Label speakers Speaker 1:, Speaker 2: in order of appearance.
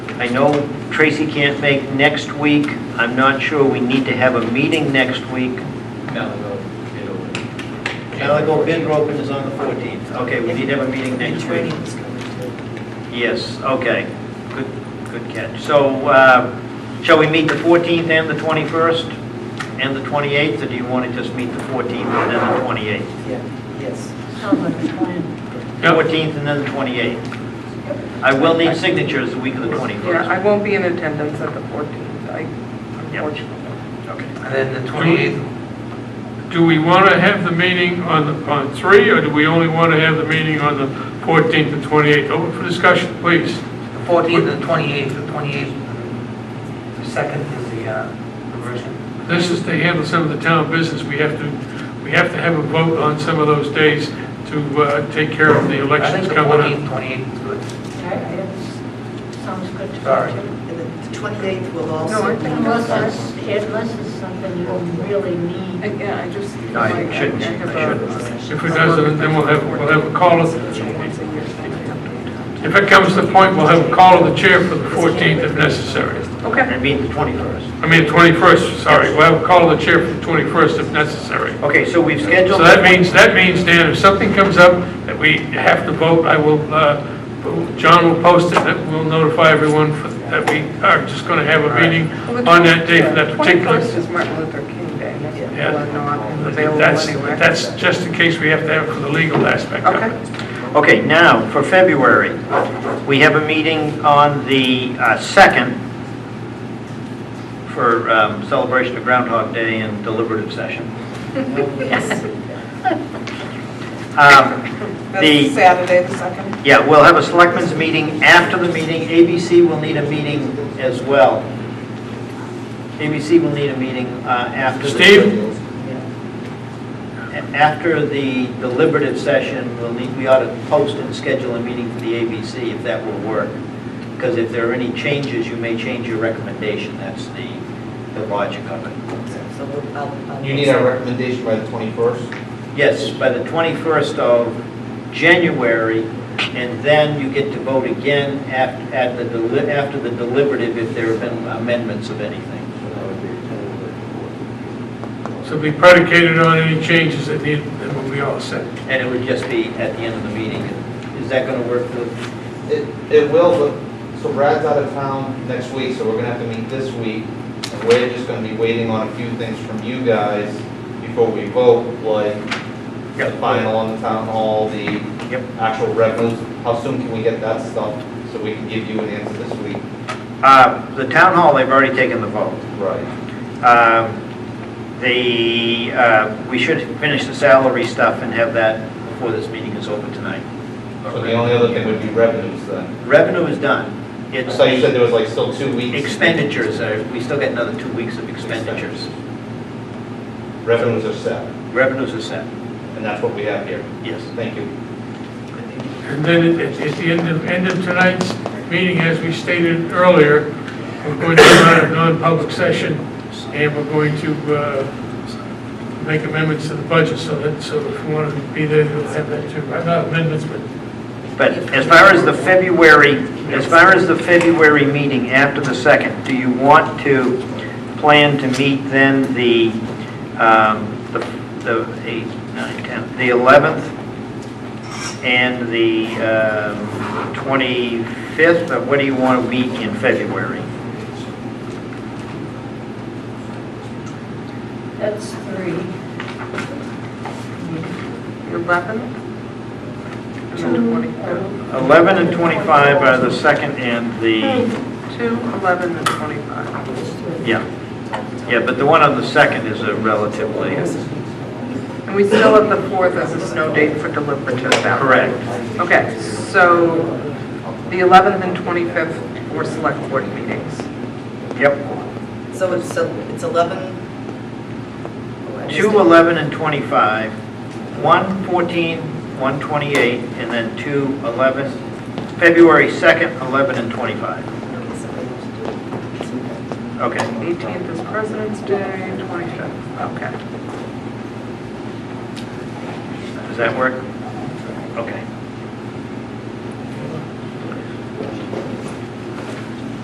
Speaker 1: I know Tracy can't make next week. I'm not sure we need to have a meeting next week.
Speaker 2: Malago bid opening.
Speaker 1: Malago bid open is on the 14th. Okay, we need to have a meeting next week.
Speaker 3: Training is coming
Speaker 1: Yes, okay. Good, good catch. So uh, shall we meet the 14th and the 21st and the 28th, or do you want to just meet the 14th and then the 28th?
Speaker 3: too. Yeah, yes.
Speaker 4: Sounds like a plan.
Speaker 1: 14th and then the 28th. I will need signatures the week of the 21st.
Speaker 5: Yeah, I won't be in attendance at the 14th, I,
Speaker 1: Yep.
Speaker 5: unfortunately.
Speaker 1: Okay.
Speaker 6: And then the 28th,
Speaker 7: Do we want to have the meeting on, the- on 3, or do we only want to have the meeting on the 14th and 28th? Open for discussion, please.
Speaker 6: the 14th and 28th, the 28th, the second is the uh, conversion.
Speaker 7: This is to handle some of the town business. We have to, we have to have a vote on some of those days to uh, take care of the
Speaker 6: I think
Speaker 7: elections
Speaker 6: the
Speaker 7: coming
Speaker 6: 14th,
Speaker 7: up.
Speaker 6: 28th is good.
Speaker 4: I- I- Sounds good to me,
Speaker 6: Sorry.
Speaker 4: too.
Speaker 3: And then the 28th will
Speaker 5: No, I
Speaker 3: also,
Speaker 5: think-
Speaker 4: Unless it's, unless it's something you really
Speaker 5: I-
Speaker 4: need.
Speaker 5: Yeah, I just.
Speaker 1: No, I shouldn't, I
Speaker 7: If it doesn't, then we'll have, we'll have a call. of- If it comes to the point, we'll have a call of the chair for the 14th if necessary.
Speaker 5: Okay,
Speaker 1: I mean the 21st.
Speaker 7: I mean, 21st, sorry, we'll have a call of the chair for the 21st if necessary.
Speaker 1: Okay, so we've scheduled.
Speaker 7: So that means, that means, Dan, if something comes up that we have to vote, I will, uh, John will post it, that we'll notify everyone for- that we are just going to have a meeting on that day for that particular.
Speaker 5: 21st is Martin Luther King Day, and that's
Speaker 7: Yeah.
Speaker 5: people are not available
Speaker 7: That's,
Speaker 5: anyway.
Speaker 7: that's just in case we have to have it for the legal aspect of
Speaker 5: Okay.
Speaker 7: it.
Speaker 1: Okay, now, for February, we have a meeting on the uh, 2nd for um, celebration of Groundhog Day and deliberative session. Um,
Speaker 5: That's
Speaker 1: The,
Speaker 5: Saturday, the 2nd.
Speaker 1: yeah, we'll have a selectmen's meeting after the meeting. ABC will need a meeting as well. ABC will need a meeting uh, after. the-
Speaker 7: Steve?
Speaker 1: A- After the deliberative session, we'll need, we ought to post and schedule a meeting for the ABC if that will work. Because if there are any changes, you may change your recommendation, that's the, the logic of it.
Speaker 3: so we'll- I'll. I'll-
Speaker 2: You need our recommendation by the 21st?
Speaker 1: Yes, by the 21st of January, and then you get to vote again at, at the, deli- after the deliberative if there have been amendments of anything.
Speaker 7: So be predicated on any changes that need, that will be all set.
Speaker 1: And it would just be at the end of the meeting. Is that going to work for,
Speaker 2: It, it will, but, so Brad's out of town next week, so we're gonna have to meet this week. And we're just gonna be waiting on a few things from you guys before we vote, like the
Speaker 1: Yep.
Speaker 2: final on the town hall, the
Speaker 1: Yep.
Speaker 2: actual revenues. How soon can we get that stuff so we can give you an answer this week?
Speaker 1: Uh, the town hall, they've already taken the vote.
Speaker 2: Right.
Speaker 1: Um, The, uh, we should finish the salary stuff and have that before this meeting is over tonight.
Speaker 2: So the only other thing would be revenues then.
Speaker 1: Revenue is done. It's
Speaker 2: So you said
Speaker 1: the
Speaker 2: there was like still two weeks.
Speaker 1: expenditures, are- we still got another two weeks of expenditures.
Speaker 2: Revenues are set,
Speaker 1: Revenues are set,
Speaker 2: and that's what we have here.
Speaker 1: yes.
Speaker 2: Thank you.
Speaker 7: And then at, at the end of, end of tonight's meeting, as we stated earlier, we're going to run a non-public session, and we're going to, uh, make amendments to the budget, so that, so if you want to be there, you'll have that too. Uh, Not amendments, but
Speaker 1: But as far as the February, as far as the February meeting after the 2nd, do you want to plan to meet then the, um, the, the 8, 9, 10, the 11th and the um, 25th, or what do you want to meet in February?
Speaker 4: That's three.
Speaker 5: Eleven? And then twenty-five.
Speaker 1: 11 and 25 are the 2nd and the,
Speaker 5: Two, eleven, and twenty-five.
Speaker 1: yeah. Yeah, but the one on the 2nd is a relatively,
Speaker 5: And we still have the fourth as a snow date for deliberative ballot.
Speaker 1: correct.
Speaker 5: Okay, so the eleventh and twenty-fifth were select board meetings.
Speaker 1: Yep.
Speaker 3: So it's, el- it's 11? Oh, I just-
Speaker 1: 2, 11, and 25, 1, 14, 1, 28, and then 2, 11, February 2nd, 11, and 25. Okay,
Speaker 5: Eighteenth is President's Day, twenty-fifth, okay.
Speaker 1: does that work? Okay.